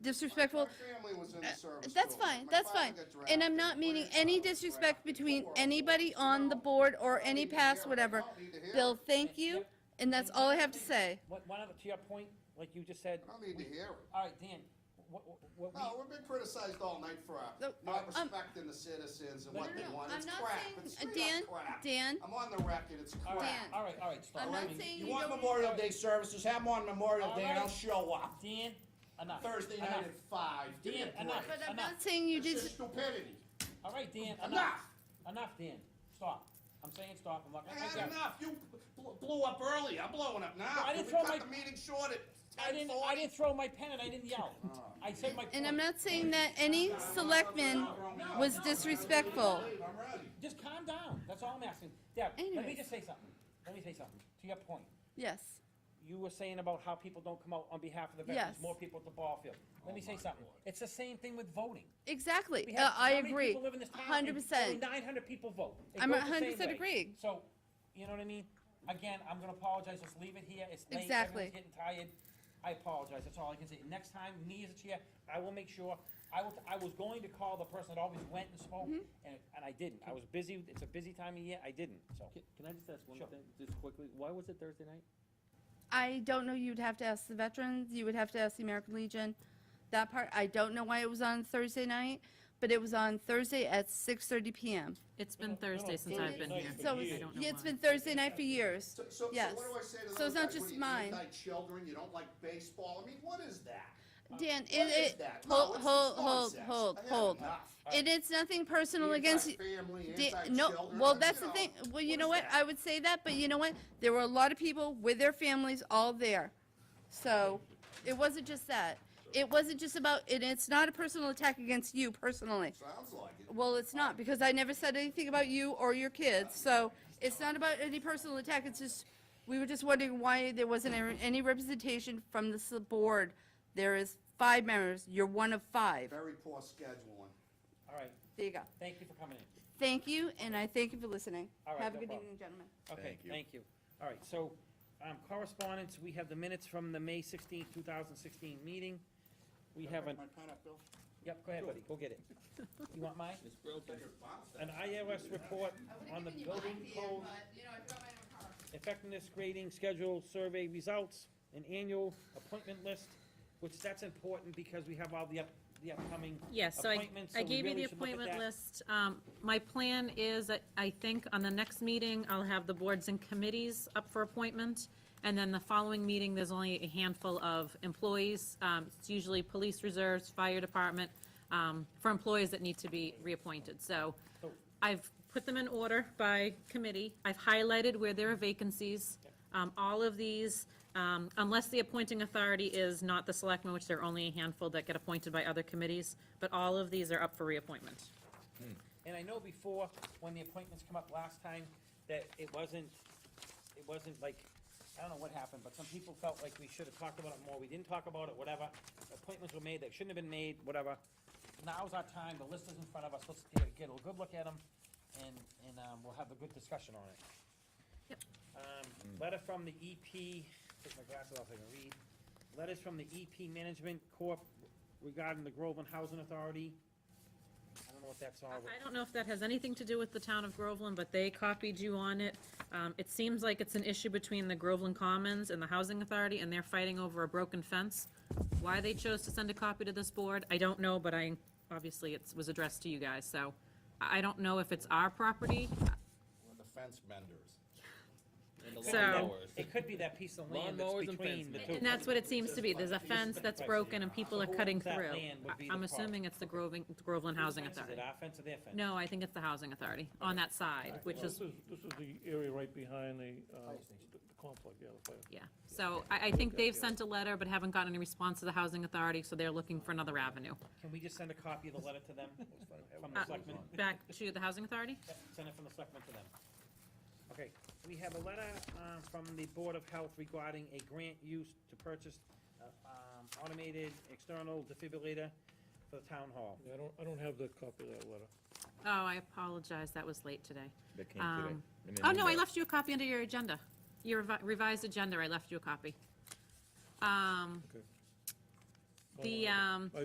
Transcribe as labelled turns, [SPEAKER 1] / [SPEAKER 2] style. [SPEAKER 1] disrespectful.
[SPEAKER 2] My family was in the
[SPEAKER 1] Uh,
[SPEAKER 2] service
[SPEAKER 1] That's
[SPEAKER 2] too.
[SPEAKER 1] fine,
[SPEAKER 2] My
[SPEAKER 1] that's
[SPEAKER 2] father
[SPEAKER 1] fine.
[SPEAKER 2] got
[SPEAKER 1] And
[SPEAKER 2] drafted.
[SPEAKER 1] I'm not meaning
[SPEAKER 2] Grandfather
[SPEAKER 1] any
[SPEAKER 2] got
[SPEAKER 1] disrespect
[SPEAKER 2] drafted.
[SPEAKER 1] between
[SPEAKER 2] Horrible.
[SPEAKER 1] anybody on the board or any past, whatever.
[SPEAKER 2] I don't need to hear it.
[SPEAKER 1] Bill, thank you, and that's all I have to say.
[SPEAKER 3] One, one other, to your point, like you just said,
[SPEAKER 2] I don't need to hear it.
[SPEAKER 3] all right, Dan, what, what,
[SPEAKER 2] No, we've been criticized all night for our
[SPEAKER 1] No,
[SPEAKER 2] not
[SPEAKER 1] um,
[SPEAKER 2] respecting the citizens and
[SPEAKER 3] No,
[SPEAKER 2] what
[SPEAKER 3] no,
[SPEAKER 2] they
[SPEAKER 1] no,
[SPEAKER 2] want.
[SPEAKER 1] I'm
[SPEAKER 2] It's
[SPEAKER 1] not
[SPEAKER 2] crap.
[SPEAKER 1] saying-
[SPEAKER 2] It's
[SPEAKER 1] uh,
[SPEAKER 2] straight
[SPEAKER 1] Dan,
[SPEAKER 2] up crap.
[SPEAKER 1] Dan.
[SPEAKER 2] I'm on the record, it's
[SPEAKER 3] all
[SPEAKER 2] crap.
[SPEAKER 3] right,
[SPEAKER 1] Dan.
[SPEAKER 3] all right, all right, stop.
[SPEAKER 1] I'm
[SPEAKER 3] I
[SPEAKER 1] not
[SPEAKER 3] mean,
[SPEAKER 1] saying
[SPEAKER 2] You
[SPEAKER 1] you
[SPEAKER 2] want
[SPEAKER 1] don't.
[SPEAKER 2] Memorial Day services, have them on Memorial
[SPEAKER 3] All
[SPEAKER 2] Day and I'll
[SPEAKER 3] right.
[SPEAKER 2] show up.
[SPEAKER 3] Dan, enough.
[SPEAKER 2] Thursday
[SPEAKER 3] enough.
[SPEAKER 2] night at five. Give me a
[SPEAKER 3] Dan,
[SPEAKER 2] break.
[SPEAKER 3] enough.
[SPEAKER 1] But I'm
[SPEAKER 3] Enough.
[SPEAKER 1] not saying you did,
[SPEAKER 2] This is stupidity.
[SPEAKER 3] All right, Dan, enough,
[SPEAKER 2] Enough!
[SPEAKER 3] enough, Dan, stop. I'm saying stop, I'm not
[SPEAKER 2] I
[SPEAKER 3] gonna take
[SPEAKER 2] had
[SPEAKER 3] that.
[SPEAKER 2] enough. You bl- blew up early. I'm blowing up now.
[SPEAKER 3] No, I
[SPEAKER 2] Can
[SPEAKER 3] didn't
[SPEAKER 2] we
[SPEAKER 3] throw
[SPEAKER 2] cut
[SPEAKER 3] my-
[SPEAKER 2] the meeting short at
[SPEAKER 3] I didn't, I
[SPEAKER 2] 10:40?
[SPEAKER 3] didn't throw my pen and I didn't yell.
[SPEAKER 2] Oh.
[SPEAKER 3] I said my
[SPEAKER 1] and I'm
[SPEAKER 3] point.
[SPEAKER 1] not saying that any selectman was disrespectful.
[SPEAKER 2] I'm ready.
[SPEAKER 3] Just calm down, that's all I'm asking. Deb, let me
[SPEAKER 1] Anyways.
[SPEAKER 3] just say something, let me say something, to your point.
[SPEAKER 1] Yes,
[SPEAKER 3] You were saying about how people don't come out on behalf of the veterans,
[SPEAKER 1] Yes.
[SPEAKER 3] more people at the ball field. Let me say something, it's the same thing with voting. We
[SPEAKER 1] exactly,
[SPEAKER 3] have
[SPEAKER 1] Uh, I
[SPEAKER 3] how many
[SPEAKER 1] agree,
[SPEAKER 3] people live in this town?
[SPEAKER 1] hundred
[SPEAKER 3] Only
[SPEAKER 1] percent.
[SPEAKER 3] 900 people vote. They
[SPEAKER 1] I'm
[SPEAKER 3] vote the same
[SPEAKER 1] 100%
[SPEAKER 3] way.
[SPEAKER 1] agreeing.
[SPEAKER 3] So, you know what I mean? Again, I'm gonna apologize, let's leave it here, it's late,
[SPEAKER 1] Exactly.
[SPEAKER 3] everyone's getting tired. I apologize, that's all I can say. Next time, me as a chair, I will make sure, I will, I was going to call the person that always went and spoke,
[SPEAKER 1] Mm-hmm.
[SPEAKER 3] and, and I didn't. I was busy, it's a busy time of year, I didn't, so.
[SPEAKER 4] Can, can I just ask one
[SPEAKER 3] Sure.
[SPEAKER 4] thing, just quickly? Why was it Thursday night?
[SPEAKER 1] I don't know, you'd have to ask the veterans, you would have to ask the American Legion. That part, I don't know why it was on Thursday night, but it was on Thursday at 6:30 PM.
[SPEAKER 5] It's
[SPEAKER 3] No,
[SPEAKER 5] been
[SPEAKER 3] no,
[SPEAKER 5] Thursday since
[SPEAKER 3] Thursday
[SPEAKER 5] I've been
[SPEAKER 3] night
[SPEAKER 5] here.
[SPEAKER 3] for
[SPEAKER 1] So,
[SPEAKER 5] I
[SPEAKER 1] it's-
[SPEAKER 5] don't know
[SPEAKER 1] yeah, it's
[SPEAKER 5] why.
[SPEAKER 1] been Thursday night for years.
[SPEAKER 2] So, so, so
[SPEAKER 1] Yes.
[SPEAKER 2] what do I say to those
[SPEAKER 1] So it's not
[SPEAKER 2] guys? What
[SPEAKER 1] just
[SPEAKER 2] are you,
[SPEAKER 1] mine.
[SPEAKER 2] Anti-children, you don't like baseball, I mean, what is that?
[SPEAKER 1] Dan,
[SPEAKER 2] What
[SPEAKER 1] it,
[SPEAKER 2] is
[SPEAKER 1] it,
[SPEAKER 2] that? No,
[SPEAKER 1] hold,
[SPEAKER 2] it's-
[SPEAKER 1] hold,
[SPEAKER 2] it's
[SPEAKER 1] hold,
[SPEAKER 2] nonsense.
[SPEAKER 1] hold,
[SPEAKER 2] I had
[SPEAKER 1] hold.
[SPEAKER 2] enough.
[SPEAKER 1] It is nothing personal against you.
[SPEAKER 2] Anti-family,
[SPEAKER 1] Da-
[SPEAKER 2] anti-children.
[SPEAKER 1] No, well, that's the
[SPEAKER 2] you
[SPEAKER 1] thing,
[SPEAKER 2] know,
[SPEAKER 1] well, you
[SPEAKER 2] what
[SPEAKER 1] know
[SPEAKER 2] is
[SPEAKER 1] what,
[SPEAKER 2] that?
[SPEAKER 1] I would say that, but you know what? There were a lot of people with their families all there. So, it wasn't just that. It wasn't just about, and it's not a personal attack against you personally.
[SPEAKER 2] Sounds like it.
[SPEAKER 1] Well, it's not, because I never said anything about you or your kids, so it's not about any personal attack, it's just, we were just wondering why there wasn't a- any representation from this board. There is five members, you're one of five.
[SPEAKER 2] Very poor scheduling.
[SPEAKER 3] All right,
[SPEAKER 1] There you go.
[SPEAKER 3] thank you for coming in.
[SPEAKER 1] Thank you, and I thank you for listening.
[SPEAKER 3] All right,
[SPEAKER 1] Have a
[SPEAKER 3] no
[SPEAKER 1] good
[SPEAKER 3] problem.
[SPEAKER 1] evening, gentlemen.
[SPEAKER 3] Okay,
[SPEAKER 6] Thank you.
[SPEAKER 3] thank you. All right, so, um, correspondence, we have the minutes from the May 16, 2016 meeting. We have an,
[SPEAKER 2] My pineapple.
[SPEAKER 3] yep, go ahead, buddy, go get it. You want mine?
[SPEAKER 4] Ms. Brillton?
[SPEAKER 3] An IRS report on the building code effectiveness grading schedule, survey results, an annual appointment list, which that's important because we have all the up, the upcoming
[SPEAKER 5] Yes, so I,
[SPEAKER 3] appointments, so
[SPEAKER 5] I
[SPEAKER 3] we
[SPEAKER 5] gave you
[SPEAKER 3] really
[SPEAKER 5] the
[SPEAKER 3] should look at
[SPEAKER 5] appointment
[SPEAKER 3] that.
[SPEAKER 5] list. Um, my plan is, that I think, on the next meeting, I'll have the boards and committees up for appointment. And then the following meeting, there's only a handful of employees. Um, it's usually police reserves, fire department, um, for employees that need to be reappointed. So I've put them in order by committee. I've highlighted where there are vacancies. Um, All of these, um, unless the appointing authority is not the selectmen, which there are only a handful that get appointed by other committees, but all of these are up for reappointment.
[SPEAKER 3] And I know before, when the appointments come up last time, that it wasn't, it wasn't like, I don't know what happened, but some people felt like we should have talked about it more, we didn't talk about it, whatever. Appointments were made that shouldn't have been made, whatever. Now's our time, the list is in front of us, let's get a- get a good look at them, and, and um, we'll have a good discussion on it. Um, Letter from the EP, take my glasses off so I can read. Letters from the EP Management Corp regarding the Groveland Housing Authority. I don't know what that's all
[SPEAKER 5] I
[SPEAKER 3] about.
[SPEAKER 5] I don't know if that has anything to do with the town of Groveland, but they copied you on it. Um, It seems like it's an issue between the Groveland Commons and the Housing Authority, and they're fighting over a broken fence. Why they chose to send a copy to this board, I don't know, but I, obviously, it was addressed to you guys, so I I don't know if it's our property.
[SPEAKER 2] We're the fence menders.
[SPEAKER 4] And the
[SPEAKER 5] So-
[SPEAKER 4] lawnmowers.
[SPEAKER 3] It could be that piece of land that's
[SPEAKER 4] Lawnmowers and
[SPEAKER 3] between the
[SPEAKER 4] fences.
[SPEAKER 3] two.
[SPEAKER 5] And that's what it seems to be. There's a fence that's broken and people are cutting
[SPEAKER 3] That
[SPEAKER 5] through.
[SPEAKER 3] land would be the
[SPEAKER 5] I'm
[SPEAKER 3] problem.
[SPEAKER 5] assuming it's the Groveland, Groveland
[SPEAKER 3] Whose
[SPEAKER 5] Housing
[SPEAKER 3] fence is it,
[SPEAKER 5] Authority.
[SPEAKER 3] our fence or their fence?
[SPEAKER 5] No, I think it's the Housing Authority on that side, which
[SPEAKER 7] This
[SPEAKER 5] is,
[SPEAKER 7] is, this is the area right behind the, uh, the the conflict, yeah, the fire.
[SPEAKER 5] yeah. So I, I think they've sent a letter but haven't gotten any response to the Housing Authority, so they're looking for another avenue.
[SPEAKER 3] Can we just send a copy of the letter to them? From the
[SPEAKER 5] Uh,
[SPEAKER 3] selectmen?
[SPEAKER 5] Back to the Housing Authority?
[SPEAKER 3] Yep, Send it from the selectmen to them. Okay, we have a letter uh, from the Board of Health regarding a grant used to purchase uh, um, automated external defibrillator for the town hall.
[SPEAKER 7] Yeah, I don't, I don't have the copy of that letter.
[SPEAKER 5] Oh, I apologize. That was late today.
[SPEAKER 6] That came today.
[SPEAKER 5] Um,
[SPEAKER 6] in an
[SPEAKER 5] Oh, no, I
[SPEAKER 6] email.
[SPEAKER 5] left you a copy under your agenda. Your revi- revised agenda, I left you a copy. Um,
[SPEAKER 7] Okay.
[SPEAKER 5] The, um,